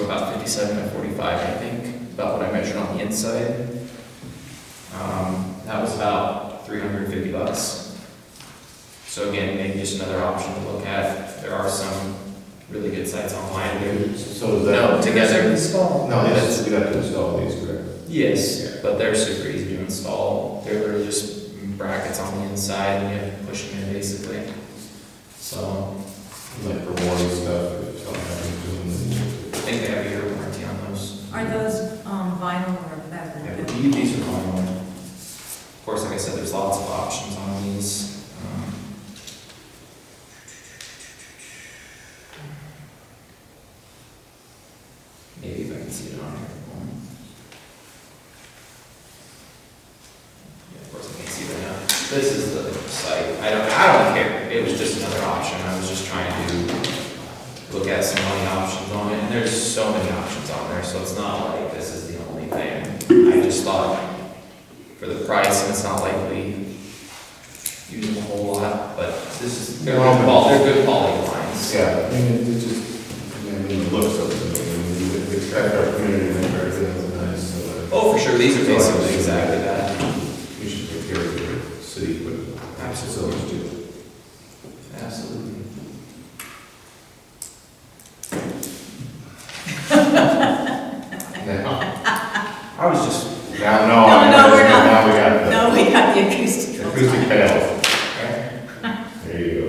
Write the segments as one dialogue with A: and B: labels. A: about fifty-seven by forty-five, I think, about what I measured on the inside. Um, that was about three hundred and fifty bucks. So again, maybe just another option to look at, there are some really good sites online, who-
B: So is
A: no,
B: that,
A: together.
C: Install.
B: no, that's, we have to install these, correct?
A: Yes, but they're super easy to install. They're literally just brackets on the inside and you have to push them in basically. So
B: Like for warranty stuff, if something happens
A: I think they have a year warranty on those.
C: Are those um, vinyl or
A: Yeah,
C: fabric?
A: but you- these are going on. Of course, like I said, there's lots of options on these. Um, Maybe if I can see it on here. Yeah, of course I can't see that now. This is the site. I don't, I don't care. It was just another option. I was just trying to look at some money options on it. And there's so many options on there, so it's not like this is the only thing. I just thought for the price, and it's not likely using a whole lot, but this is, they're good quality, they're good quality lines.
B: Yeah, I mean, it it just, I mean, it looks up to me, I mean, we expect our community members to have nice, so
A: Oh, for sure, these are basically exactly that.
B: uh, we should take care of the city, but absolutely do.
A: Absolutely.
B: Now,
A: I was just,
B: now, no.
C: No, no, we're not.
B: Now we got the
C: No, we got the acoustic.
B: acoustic panel,
A: okay.
B: there you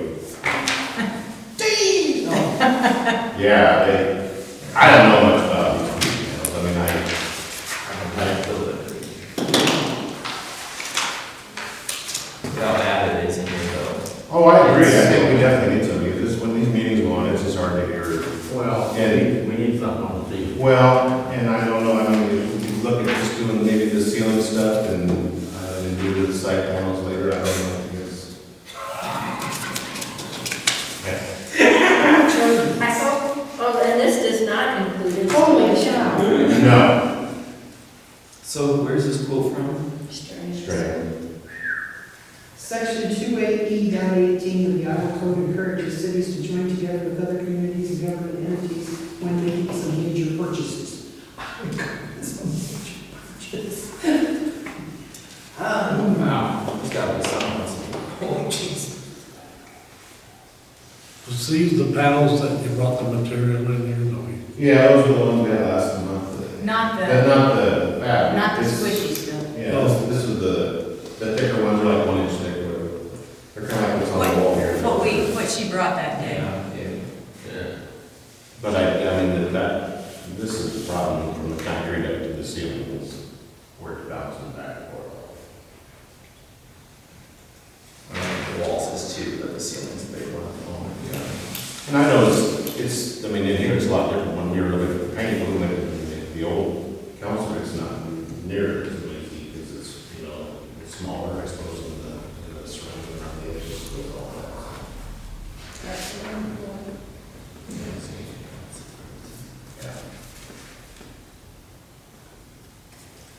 B: go.
A: No.
B: Yeah, it, I don't know much about the acoustic panels, I mean, I,
A: I'm gonna build it. Look How bad it is in here though.
B: oh, I agree, I think we definitely need something, because when these meetings go on, it's just hard to hear.
D: Well,
B: And-
D: we need something on the table.
B: Well, and I don't know, I mean, we could look at just doing maybe the ceiling stuff and, uh, and do the side panels later, I don't know, I guess.
E: Oh, and this does not include installation.
B: No.
A: So where's this quote from?
B: Straight.
F: Section 28E dot 18 of the Iowa Code encourages cities to join together with other communities and government entities when making some major purchases. Some major purchase. Um,
A: Wow, there's gotta be something else. Holy jeez.
G: See the panels that you brought the material in here, no, you-
B: Yeah, those were the ones we had last month.
C: Not
B: But
C: the,
B: not the, yeah.
C: not the
B: this-
C: squishy stuff.
B: Yeah, this, this was the, the thicker ones are like one inch thick, whatever. They're kind of like what's on the wall here.
C: What we, what she brought that day.
A: Yeah, yeah.
B: But I, I mean, that- that, this is the problem from the concrete up to the ceiling is where it bounces back and forth.
A: I mean, the walls is two, but the ceiling's a big one at the moment.
B: Yeah, And I know it's, it's, I mean, in here it's a lot different when you're looking at paint, when you're looking at the old council, it's not near as many feet because it's, you know, it's smaller, I suppose, than the, than the surrounding around the edges with all that.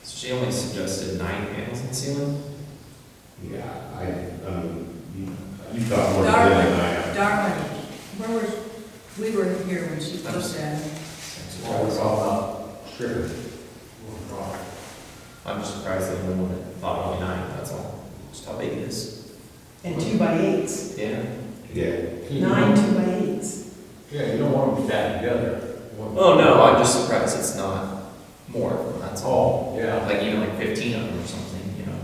A: So she only suggested nine panels in the ceiling?
B: Yeah, I, um, you, you thought more than
C: Darwin.
B: I.
C: Darwin, where were, we were here when she looked at it.
B: Sure.
A: I'm just surprised that anyone would have thought only nine, that's all. Just how big it is.
F: And two by eights,
A: Yeah.
B: Yeah.
F: nine two by eights.
D: Yeah, you don't want them stacked together.
A: Oh, no, I'm just surprised it's not more, that's all.
D: oh, Yeah,
A: Like even like fifteen of them or something, you know?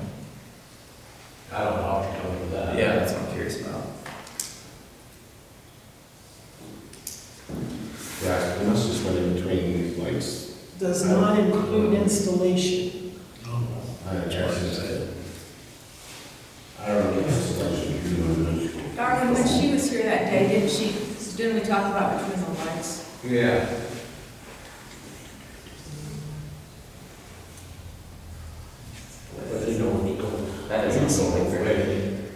D: I don't know how to come with that.
A: Yeah, Uh, that's what I'm curious about.
B: Yeah, it must just went in between these lights.
F: Does not include installation.
G: no, no.
B: I I don't know if it's like, you know,
C: Darwin, when she was here that day, didn't she, didn't we talk about between the lights?
D: Yeah. But they don't need to.
A: That is insulting for everything.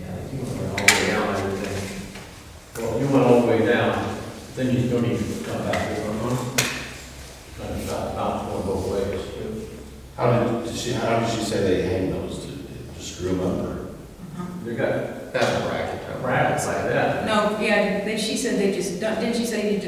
A: Yeah, like you went all the way down, I would think.
D: Well, you went all the way down, then you don't need to come back here, huh? Kind of not, not going both ways.
B: How did, did she, how did she say they hang those to, to screw them up or?
D: You got
A: That's a bracket. probably.
D: brackets like that.
C: No, yeah, they, she said they just, didn't she say you